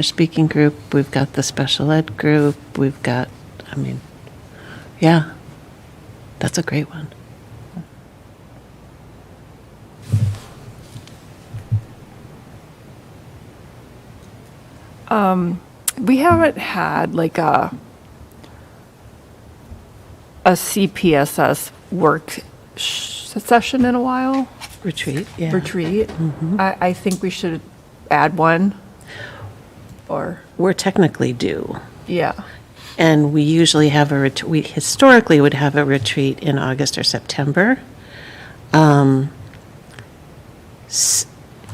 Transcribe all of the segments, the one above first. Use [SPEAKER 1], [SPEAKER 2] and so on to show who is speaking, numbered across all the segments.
[SPEAKER 1] Spanish-speaking group, we've got the special ed group, we've got, I mean, yeah, that's a great one.
[SPEAKER 2] We haven't had like a a CPSS work sh- session in a while.
[SPEAKER 1] Retreat, yeah.
[SPEAKER 2] Retreat. I, I think we should add one. Or
[SPEAKER 1] We're technically due,
[SPEAKER 2] yeah,
[SPEAKER 1] and we usually have a, ret- we historically would have a retreat in August or September. Um, s-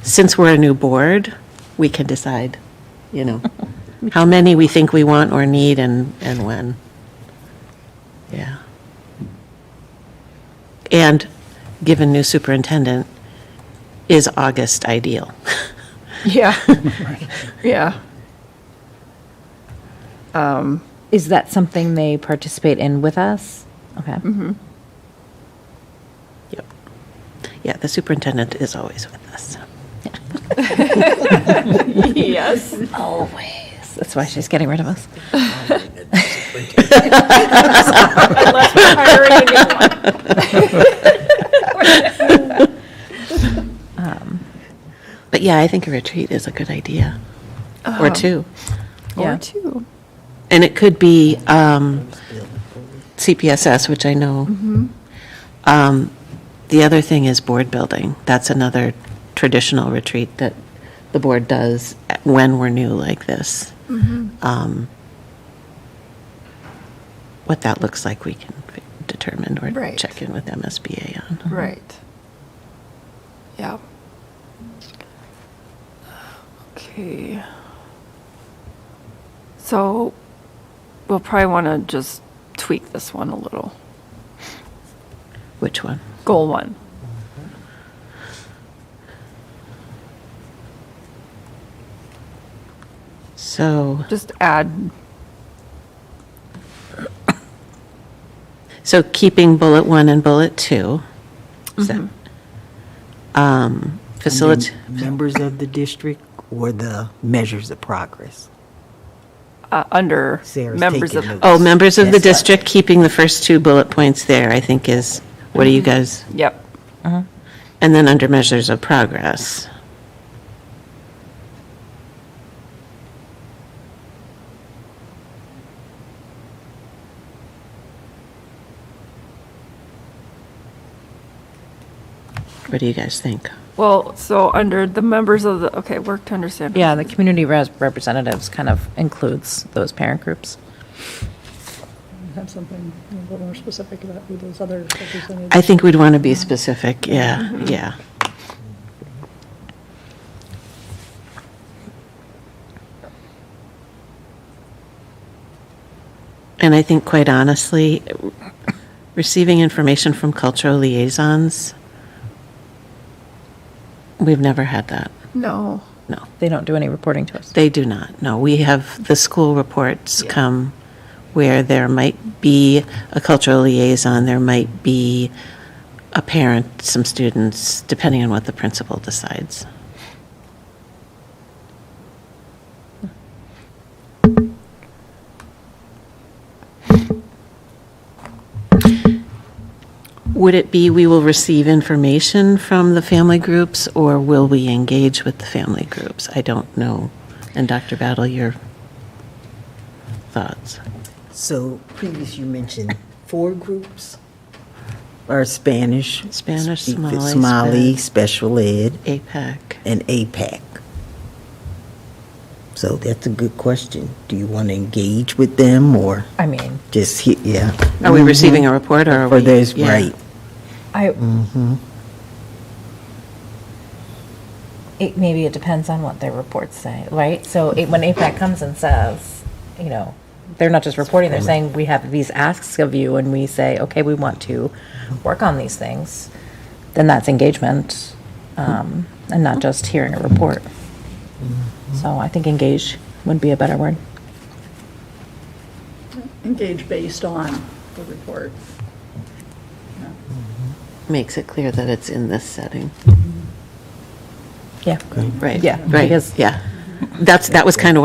[SPEAKER 1] Since we're a new board, we can decide, you know, how many we think we want or need and, and when. Yeah. And given new superintendent, is August ideal?
[SPEAKER 2] yeah, yeah. Um.
[SPEAKER 3] Is that something they participate in with us? Okay.
[SPEAKER 1] Yep. Yeah, the superintendent is always with us.
[SPEAKER 2] Yes.
[SPEAKER 3] Always. That's why she's getting rid of us.
[SPEAKER 2] Unless we're hiring a new one.
[SPEAKER 1] But yeah, I think a retreat is a good idea, or two.
[SPEAKER 2] Or two.
[SPEAKER 1] And it could be um, CPSS, which I know. Um, The other thing is board building. That's another traditional retreat that the board does when we're new like this. Um, What that looks like, we can fi- determine or
[SPEAKER 2] Right.
[SPEAKER 1] check in with MSBA on.
[SPEAKER 2] Right. Yeah. Okay. So we'll probably want to just tweak this one a little.
[SPEAKER 1] Which one?
[SPEAKER 2] Goal one.
[SPEAKER 1] So,
[SPEAKER 2] Just add,
[SPEAKER 1] so keeping bullet one and bullet two. Is that- Um, Facilitate.
[SPEAKER 4] Members of the district or the measures of progress?
[SPEAKER 2] uh, under
[SPEAKER 4] Sarah's
[SPEAKER 2] members
[SPEAKER 4] taking
[SPEAKER 2] of,
[SPEAKER 4] notes.
[SPEAKER 1] Oh, members of the
[SPEAKER 4] Yes.
[SPEAKER 1] district, keeping the first two bullet points there, I think is, what do you guys,
[SPEAKER 2] yep.
[SPEAKER 1] and then under measures of progress. What do you guys think?
[SPEAKER 2] Well, so under the members of the, okay, work to understand.
[SPEAKER 3] Yeah, the community res- representatives kind of includes those parent groups.
[SPEAKER 5] have something a little more specific about who those other representatives
[SPEAKER 1] I think we'd want to be specific, yeah, yeah. And I think quite honestly, receiving information from cultural liaisons, we've never had that,
[SPEAKER 2] No.
[SPEAKER 1] no.
[SPEAKER 3] They don't do any reporting to us.
[SPEAKER 1] They do not, no. We have, the school reports come where there might be a cultural liaison, there might be a parent, some students, depending on what the principal decides. Would it be we will receive information from the family groups, or will we engage with the family groups? I don't know. And Dr. Battle, your thoughts?
[SPEAKER 4] So previous you mentioned four groups are Spanish.
[SPEAKER 1] Spanish,
[SPEAKER 4] speak-
[SPEAKER 1] Somali,
[SPEAKER 4] Somali,
[SPEAKER 1] Spa-
[SPEAKER 4] special ed,
[SPEAKER 1] APAC.
[SPEAKER 4] and APAC. So that's a good question. Do you want to engage with them or
[SPEAKER 3] I mean,
[SPEAKER 4] just, hit- yeah?
[SPEAKER 1] Are we receiving a report, or are we?
[SPEAKER 4] Or there's,
[SPEAKER 1] yeah.
[SPEAKER 4] right.
[SPEAKER 3] I. It, maybe it depends on what their reports say, right? So it, when APAC comes and says, you know, they're not just reporting, they're saying, we have these asks of you, and we say, okay, we want to work on these things, then that's engagement, um, and not just hearing a report. So I think engage would be a better word.
[SPEAKER 5] engage based on the report.
[SPEAKER 1] Makes it clear that it's in this setting.
[SPEAKER 3] Yeah.
[SPEAKER 1] Right.
[SPEAKER 3] Yeah,
[SPEAKER 1] Right,
[SPEAKER 3] because-
[SPEAKER 1] yeah. That's, that was kind of